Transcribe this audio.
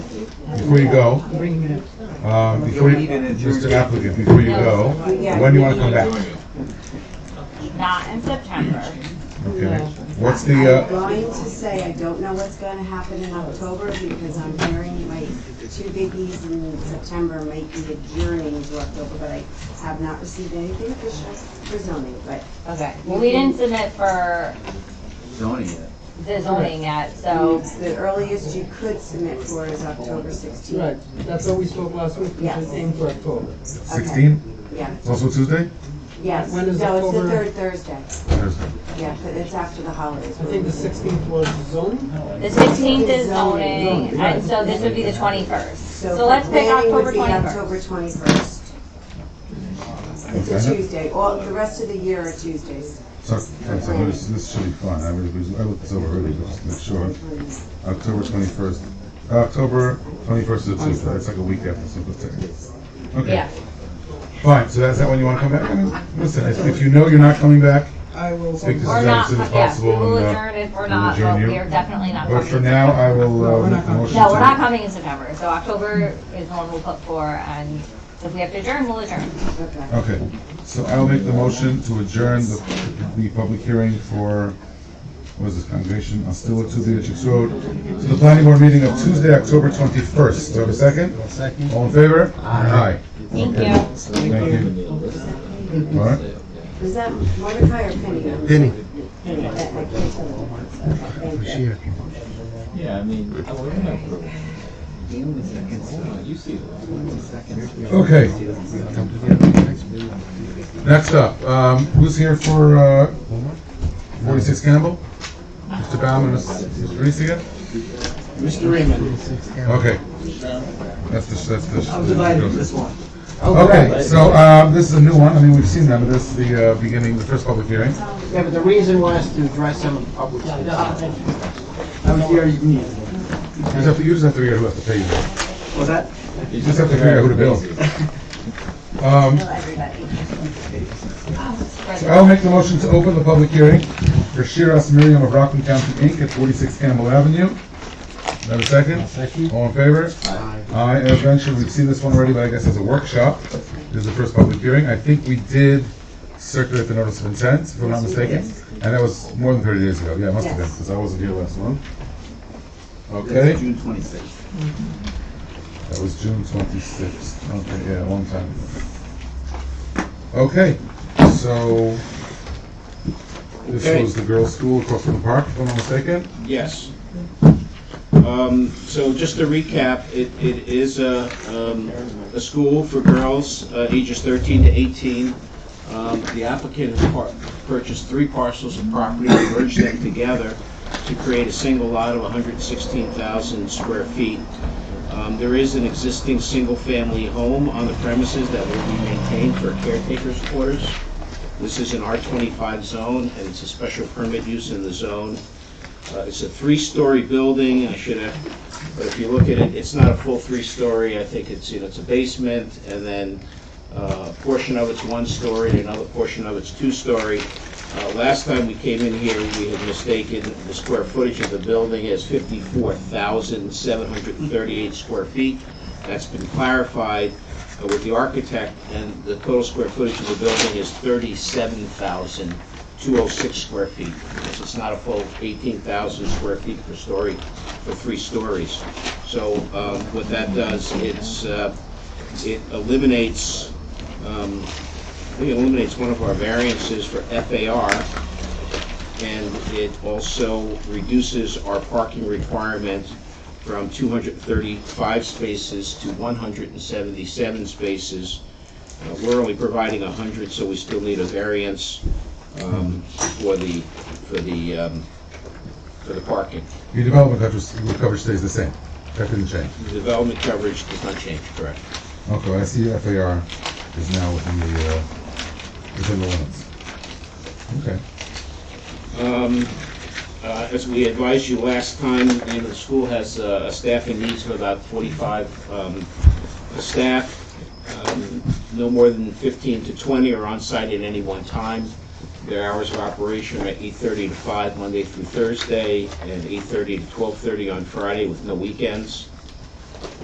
before you go, I'm bringing it up. um, before you, Mr. Applicant, before you go, when do you want to come back? Not in September. Okay. What's the, I'm uh, going to say, I don't know what's gonna happen in October, because I'm hearing my two biggies in September might be adjourning to October, but I have not received anything official for zoning, but Okay. Well, we didn't submit for zoning yet. the zoning yet, so the earliest you could submit for is October Right, sixteenth. that's what we spoke last week, we Yes. said aim for October. sixteen, Yeah, also Tuesday? yes, no, When it's is the October? third Thursday, Thursday. yeah, but it's after the holidays. I think the sixteenth was zoning. the sixteenth is zoning, and so this would be the twenty-first. So let's pick planning would October be twenty-first. October twenty-first, it's a Okay. Tuesday, all, the rest of the year are Tuesdays. So, so so this, this should be fun. I would, I looked this over earlier, just to make sure. October twenty-first, October twenty-first is a Tuesday. It's like a week after Cinco de Mayo. Okay, Yeah, fine. So that's that when you want to come back? I mean, Listen, if, if you know you're not coming back, I will. Speak to- or as not, soon as yeah, we possible, will and, uh, adjourn if we're we'll not, but adjourn you. we are definitely not but coming. for now, I will, No, uh, we're make a not motion to. No, we're not coming in September, so October is the one we'll put for, and if we have to adjourn, we'll adjourn. Okay. Okay, so I'll make the motion to adjourn the, the public hearing for, what is this, congregation, Ostilla, Two Beatrix Road, to the planning board meeting of Tuesday, October twenty-first. Do I have a second? Second. All in favor? Aye. Thank you. Thank you. All right, Was that Mordecai or Penny? Penny. Penny, I can't tell the difference. Okay, thank you. Yeah, I mean, I would have. You see the. okay, next up, um, who's here for, uh, forty-six Campbell? Mr. Bauman, Mr. Aricia? Mr. Raymond. Okay. That's the, that's the. I'm divided with this one. Okay, so, um, this is a new one, I mean, we've seen them, but this is the, uh, beginning, the first public hearing. Yeah, but the reason was to address some public. I was here, you need. You just have to, you just have to figure out who has to pay you, you Was that? just have to figure out who to bill. Um, so I'll make the motion to open the public hearing for Shiraz Miriam of Rockland County, Inc. at forty-six Campbell Avenue. Another second? Second. All in favor? Aye. Aye, as mentioned, we've seen this one already, but I guess as a workshop, this is the first public hearing, I think we did circulate the notice of intent, if I'm not mistaken, and that was more than thirty days ago, yeah, it must have been, Yes. because I wasn't here last month. Okay. That's June twenty-sixth. That was June twenty-sixth, okay, yeah, a long time ago. Okay, so, this Okay. was the girls' school across from the park, if I'm not mistaken? Yes. Um, So just to recap, it it is a um, a school for girls uh, ages 13 to 18. Um, The applicant has par- purchased three parcels of property and merged them together to create a single lot of 116,000 square feet. Um, There is an existing single-family home on the premises that will be maintained for caretaker's quarters. This is an R25 zone, and it's a special permit use in the zone. Uh, It's a three-story building, I should have, but if you look at it, it's not a full three-story. I think it's, you know, it's a basement, and then uh, a portion of it's one-story, and another portion of it's two-story. Uh, Last time we came in here, we had mistaken the square footage of the building as 54,738 square feet. That's been clarified uh, with the architect, and the total square footage of the building is 37,206 square feet. So It's not a full 18,000 square feet per story, for three stories. So um, what that does, it's, uh, it eliminates, um, I think it eliminates one of our variances for FAR, and it also reduces our parking requirement from 235 spaces to 177 spaces. Uh, We're only providing 100, so we still need a variance um, for the, for the, um, for the parking. Your development coverage, coverage stays the same, that didn't change. The development coverage does not change, correct? Okay, I see FAR is now within the, uh, within the limits. Okay, Um, uh, As we advised you last time, you know, the school has uh, a staffing needs of about 45 um, staff. Um, No more than 15 to 20 are on site at any one time. Their hours of operation are 8:30 to 5 Monday through Thursday, and 8:30 to 12:30 on Friday with no weekends.